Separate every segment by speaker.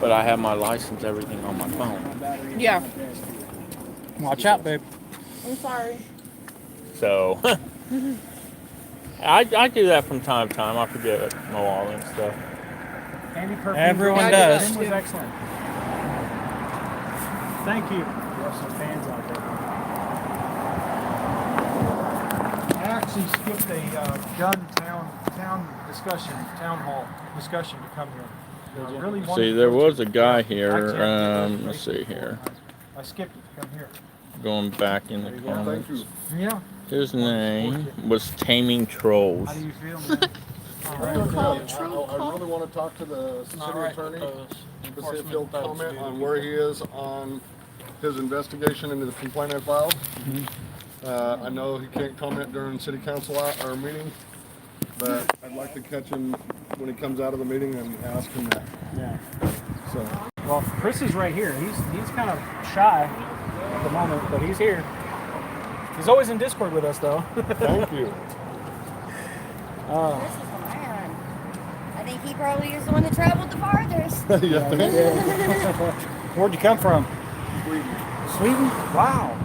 Speaker 1: But I have my license, everything on my phone.
Speaker 2: Yeah.
Speaker 3: Watch out, babe.
Speaker 2: I'm sorry.
Speaker 1: So I, I do that from time to time. I forget my wallet and stuff.
Speaker 4: Andy Perkins.
Speaker 3: Everyone
Speaker 2: Yeah, I do
Speaker 3: does.
Speaker 2: that.
Speaker 4: was excellent. Thank you. We have some fans out there. I actually skipped a uh, gun town town discussion, town hall discussion to come here. I really wanted
Speaker 1: See,
Speaker 4: to
Speaker 1: there
Speaker 4: go to-
Speaker 1: was a guy
Speaker 4: I can't
Speaker 1: here.
Speaker 4: do those
Speaker 1: Um, let's
Speaker 4: places
Speaker 1: see here.
Speaker 4: I skipped it to come here.
Speaker 1: Going back in the comments.
Speaker 4: Yeah.
Speaker 1: His name was Taming Trolls.
Speaker 4: How do you feel, man? All right.
Speaker 5: I,
Speaker 2: Call
Speaker 5: I- I really want to talk to the city attorney to see if he'll comment on where he is on his investigation into the complaint I filed. Uh, I know he can't comment during city council hou- or meeting, but I'd like to catch him when he comes out of the meeting and ask him that.
Speaker 4: Yeah.
Speaker 5: So,
Speaker 4: Well, Chris is right here. He's he's kind of shy at the moment, but he's here. He's always in Discord with us, though.
Speaker 5: thank you.
Speaker 4: Uh,
Speaker 6: This is Iran. I think he probably is the one that traveled the farthest.
Speaker 5: Yeah.
Speaker 4: where'd you come from? Sweden. Sweden? Wow.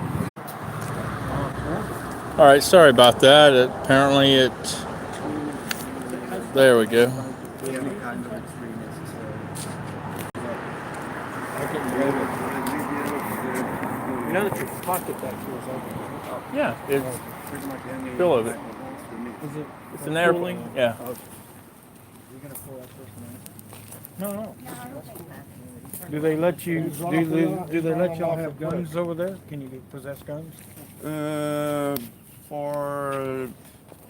Speaker 1: All right, sorry about that. Apparently it. There we go.
Speaker 5: I can believe
Speaker 3: You know that you pocket that feels like.
Speaker 1: Yeah, it's full of it.
Speaker 3: Is it?
Speaker 1: It's an airplane. Yeah.
Speaker 3: No, no.
Speaker 6: No, I don't think that.
Speaker 3: Do they let you? Do they, do they let y'all have guns over there? Can you possess guns?
Speaker 7: Uh, for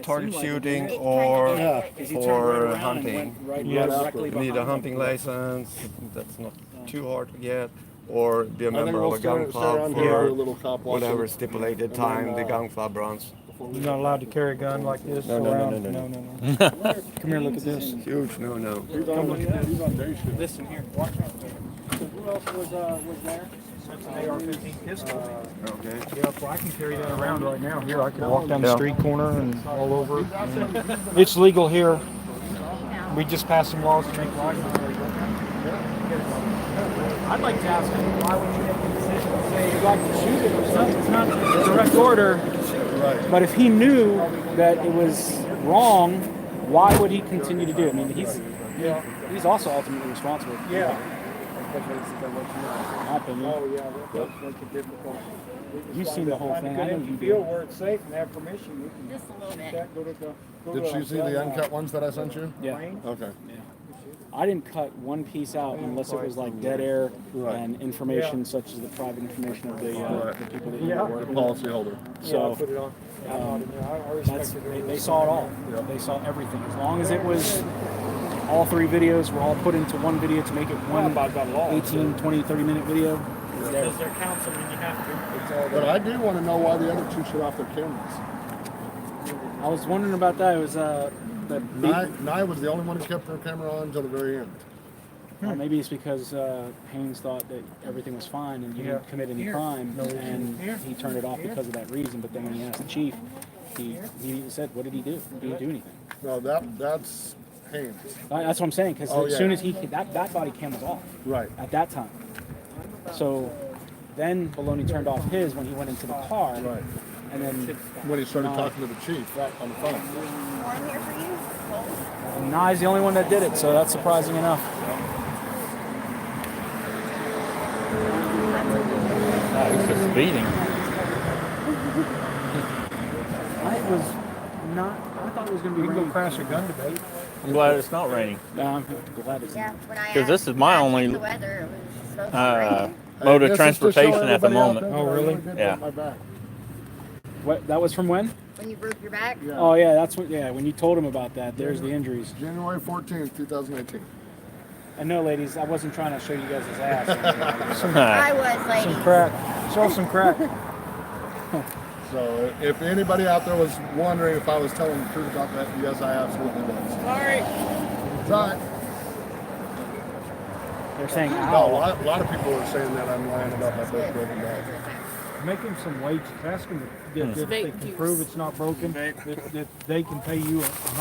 Speaker 7: target shooting
Speaker 6: It
Speaker 7: or
Speaker 6: kinda did.
Speaker 7: for hunting.
Speaker 3: Yes.
Speaker 7: Need a hunting license, that's not too hard to get, or be a
Speaker 5: I think
Speaker 7: member of
Speaker 5: we'll
Speaker 7: a
Speaker 5: stay,
Speaker 7: gun
Speaker 5: stay on
Speaker 7: club
Speaker 5: here for a
Speaker 7: for
Speaker 5: little cop watch.
Speaker 7: whatever stipulated
Speaker 5: then,
Speaker 7: time the
Speaker 5: uh,
Speaker 7: gun club runs.
Speaker 5: before we-
Speaker 3: You're not allowed to carry a gun like this
Speaker 7: No, no, no,
Speaker 3: around.
Speaker 7: no, no, no.
Speaker 3: no, no. Come here, look at this.
Speaker 7: Huge no-no.
Speaker 5: He's on, he's on day shift.
Speaker 3: Listen here. Watch out. Who else was uh was there?
Speaker 4: That's an AR-15 pistol.
Speaker 7: Okay.
Speaker 4: Yeah, well, I can carry that around right now. Here, I can walk down the
Speaker 7: Yeah.
Speaker 4: street corner and all over. It's legal here. We just passed some laws to make life illegal. I'd like to ask him, why would you make the decision to say you'd like to shoot it or something? It's not a direct order,
Speaker 5: Right.
Speaker 4: but if he knew that it was wrong, why would he continue to do it? I mean, he's, he's also ultimately responsible.
Speaker 5: Yeah.
Speaker 4: My opinion.
Speaker 8: Oh, yeah, that does make it difficult.
Speaker 4: You've seen the whole thing. I know
Speaker 8: If
Speaker 4: you
Speaker 8: you feel
Speaker 4: do.
Speaker 8: where it's safe and have permission, you can
Speaker 6: Just a little
Speaker 8: do
Speaker 6: bit.
Speaker 8: that, go to the. go
Speaker 5: Did
Speaker 8: to
Speaker 5: she
Speaker 8: a
Speaker 5: see the
Speaker 8: gun
Speaker 5: uncut ones that I sent you?
Speaker 4: Yeah.
Speaker 8: range.
Speaker 5: Okay.
Speaker 4: I didn't cut one piece out unless it was like dead air and information such as the private information of the, uh,
Speaker 5: Right.
Speaker 4: the people that
Speaker 8: Yeah.
Speaker 4: you
Speaker 5: The
Speaker 4: work with.
Speaker 5: policyholder.
Speaker 8: Yeah, I
Speaker 4: So
Speaker 8: put it on. I bought it, yeah, I- I
Speaker 4: that's,
Speaker 8: respected
Speaker 4: they,
Speaker 8: it.
Speaker 4: they saw it all. They saw everything. As long as it was, all three videos were all put into one video to make it one 18, 20, 30 minute video.
Speaker 2: Because they're councilmen, you have to.
Speaker 5: But I do want to know why the other two shut off their cameras.
Speaker 4: I was wondering about that. It was, uh, the,
Speaker 5: Nye, Nye was the only one who kept her camera on until the very end.
Speaker 4: Or
Speaker 5: Hmm.
Speaker 4: maybe it's because uh, Haynes thought that everything was fine and he didn't commit any crime, and he turned it off because of that reason. But then when he asked the chief, he, he even said, "What did he do? He didn't do anything."
Speaker 5: No, that that's Haynes.
Speaker 4: Uh, That's what I'm saying. Because
Speaker 5: Oh,
Speaker 4: as
Speaker 5: yeah.
Speaker 4: soon as he that that body cam was off
Speaker 5: Right.
Speaker 4: at that time, so then Baloney turned off his when he went into the car,
Speaker 5: Right.
Speaker 4: and then
Speaker 5: When he started
Speaker 4: Nye.
Speaker 5: talking to the chief
Speaker 4: Right.
Speaker 5: on the phone.
Speaker 6: Warm here for you. Cold.
Speaker 4: Nye's the only one that did it. So that's surprising enough.
Speaker 1: Oh, he's just speeding.
Speaker 4: I was not. I thought it was going to
Speaker 5: Uh-huh.
Speaker 3: We can
Speaker 4: be.
Speaker 3: go
Speaker 4: raining.
Speaker 3: crash a gun debate.
Speaker 1: I'm glad it's not raining.
Speaker 4: No, I'm glad it's.
Speaker 6: Yeah, when I
Speaker 1: 'Cause this
Speaker 6: asked
Speaker 1: is my
Speaker 6: about
Speaker 1: only,
Speaker 6: The weather, it was supposed to
Speaker 1: Uh,
Speaker 6: rain.
Speaker 1: mode
Speaker 5: Hey,
Speaker 1: of
Speaker 5: this is to show
Speaker 1: transportation at the
Speaker 5: everybody out
Speaker 1: moment.
Speaker 5: there
Speaker 3: Oh,
Speaker 5: that I
Speaker 3: really?
Speaker 5: did put
Speaker 1: Yeah.
Speaker 5: my back.
Speaker 4: What that was from when?
Speaker 6: When you broke your back.
Speaker 5: Yeah.
Speaker 4: Oh yeah, that's what. Yeah, when you told him about that, there's the injuries.
Speaker 5: January 14th, 2018.
Speaker 4: And no, ladies, I wasn't trying to show you guys his ass.
Speaker 6: I was, lady.
Speaker 3: Some crack. Show some crack.
Speaker 5: So if anybody out there was wondering if I was telling the truth about that, yes, I absolutely was.
Speaker 2: Sorry.
Speaker 5: It's all right.
Speaker 4: They're saying,
Speaker 5: No, a
Speaker 4: "Ow."
Speaker 5: lot, a lot of people are saying that I'm lying about my foot broken back.
Speaker 3: Make him some wages. Ask him if, if they can prove it's not broken, that, that they can pay you a